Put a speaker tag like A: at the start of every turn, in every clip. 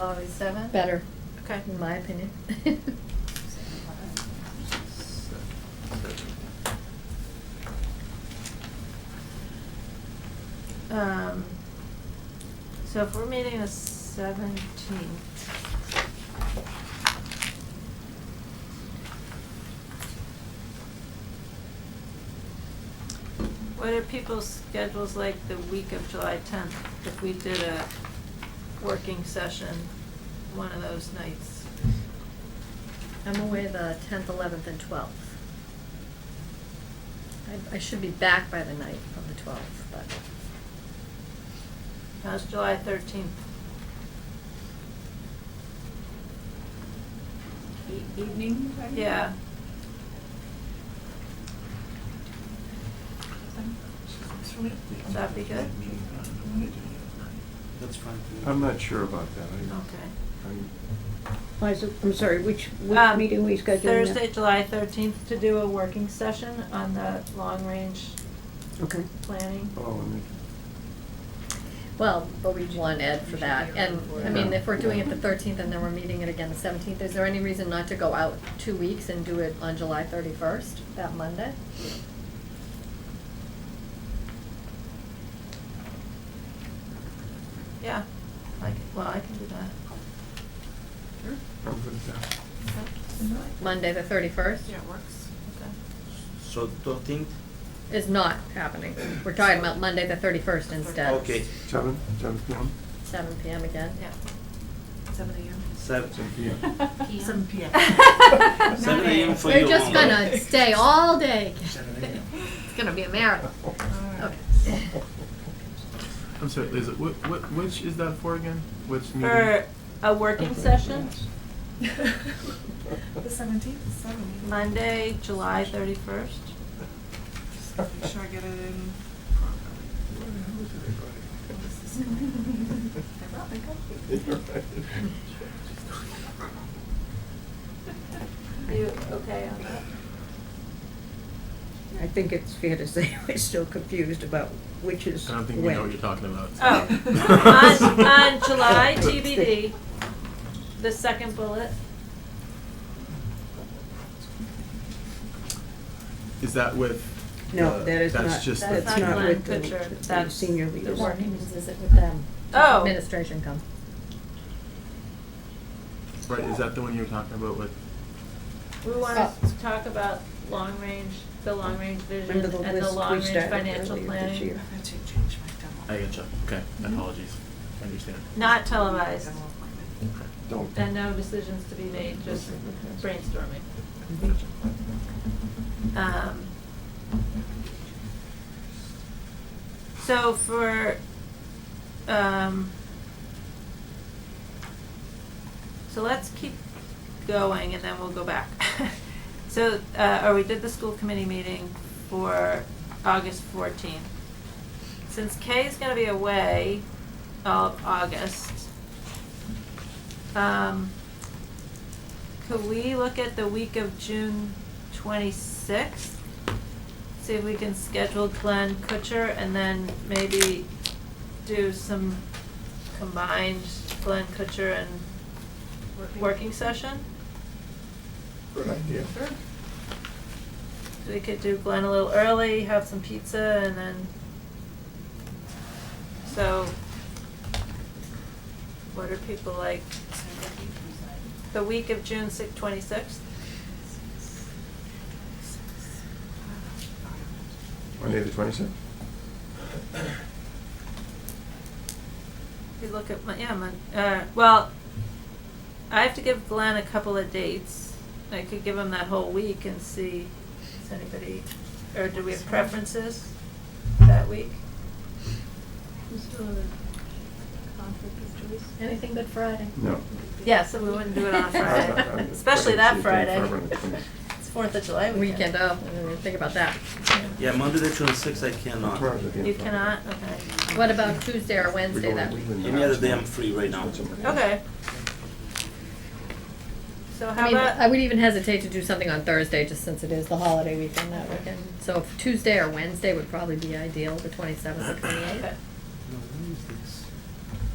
A: Always seven?
B: better,
A: Okay.
B: in my opinion.
A: Um, so if we're meeting the seventeenth. What are people's schedules like the week of July tenth, if we did a working session one of those nights?
B: I'm away the tenth, eleventh, and twelfth. I, I should be back by the night of the twelfth, but
A: How's July thirteenth?
C: E- Evening? I think?
A: Yeah, Would that be good?
D: That's fine.
E: I'm not sure about that. I-
A: okay.
E: I-
F: Why is it, I'm sorry, which, which
A: Um,
F: meeting we scheduling? now?
A: Thursday, July thirteenth, to do a working session on the long-range
F: Okay.
A: planning.
E: Oh, I mean,
B: Well, but we want Ed for
C: should
B: that,
C: be
B: and,
C: around for
B: I
E: it.
B: mean, if we're doing it the
E: Yeah.
B: thirteenth and then we're meeting it again the seventeenth, is there any reason not to go out two weeks and do it on July thirty-first, that Monday?
A: Yeah, I can, well, I can do that.
E: I'm good with that.
A: Okay.
B: Monday, the thirty-first?
A: works. Okay.
D: So thirteenth?
B: Is not happening, we're talking about Monday, the thirty-first instead.
D: Okay,
E: Seven, seven PM?
B: Seven PM again?
A: Yeah.
C: Seven AM.
D: seven,
E: Seven PM.
C: Seven PM.
D: seven AM for you.
B: We're just gonna stay all day. It's gonna be a marathon. Okay.
G: I'm sorry, Lisa, what, what, which is that for again? Which meeting?
F: Er,
A: For a working session,
C: The seventeenth, seven. AM.
A: Monday, July thirty-first.
C: Just gotta Make sure I get it in. What is this going? I brought my coffee.
A: You okay on that?
F: I think it's fair to say we're still confused about which is
G: I
F: when.
G: don't think we know what you're talking about.
A: Oh, on, on July TBD, the second bullet,
G: Is that with?
F: No,
G: the-
F: that is not,
G: That's just. the-
F: that's
A: That's not
F: not
A: Glenn
F: with the,
A: Kutcher,
F: the
A: that's
F: senior
A: the
F: leaders.
A: work.
B: What meetings is it with them? Does
A: Oh.
B: Administration come.
G: Right, is that the one you were talking about with?
A: we wanna
F: Oh.
A: talk about long-range, the long-range vision
F: Remember the
A: and the
F: list we
A: long-range
F: started
A: financial planning.
F: earlier this
C: I
F: year?
C: have to change my
G: I
C: dental.
G: gotcha, okay, apologies, I understand.
A: Not televised,
C: dental appointment.
E: Don't.
A: and no decisions to be made, just brainstorming. Um, So for, um, so let's keep going and then we'll go back. So, uh, or we did the school committee meeting for August fourteenth. Since Kay is gonna be away all of August, um, could we look at the week of June twenty-sixth? See if we can schedule Glenn Kutcher and then maybe do some combined Glenn Kutcher and working session?
E: Good idea.
C: Sure.
A: So we could do Glenn a little early, have some pizza and then, so, what are people like? The week of June six, twenty-sixth?
E: Monday, the twenty-sixth?
A: We look at my, yeah, my, uh, well, I have to give Glenn a couple of dates. I could give him that whole week and see, if anybody, or do we have preferences that week?
B: Anything but Friday?
E: No.
A: Yeah, so we wouldn't do it on a
E: I'm not-
A: Friday,
E: I'm-
A: especially
E: I'm
A: that
E: thinking
A: Friday.
E: Friday the 26th.
A: It's Fourth of July
B: Weekend,
A: weekend.
B: oh, I didn't even think about that.
D: Yeah, Monday the twenty-sixth I cannot.
E: Tomorrow's the day
A: You
E: of Friday.
A: cannot, okay.
B: What about Tuesday or Wednesday
E: We're
B: that
E: going-
B: week?
E: we're
D: Any other day
E: not-
D: I'm free right now.
A: Okay. So
B: I
A: how
B: mean,
A: about?
B: I would even hesitate to do something on Thursday, just since it is the holiday weekend that weekend. So if Tuesday or Wednesday would probably be ideal, the twenty-seventh or twenty-eighth.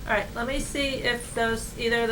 A: All right, let me see if those, either of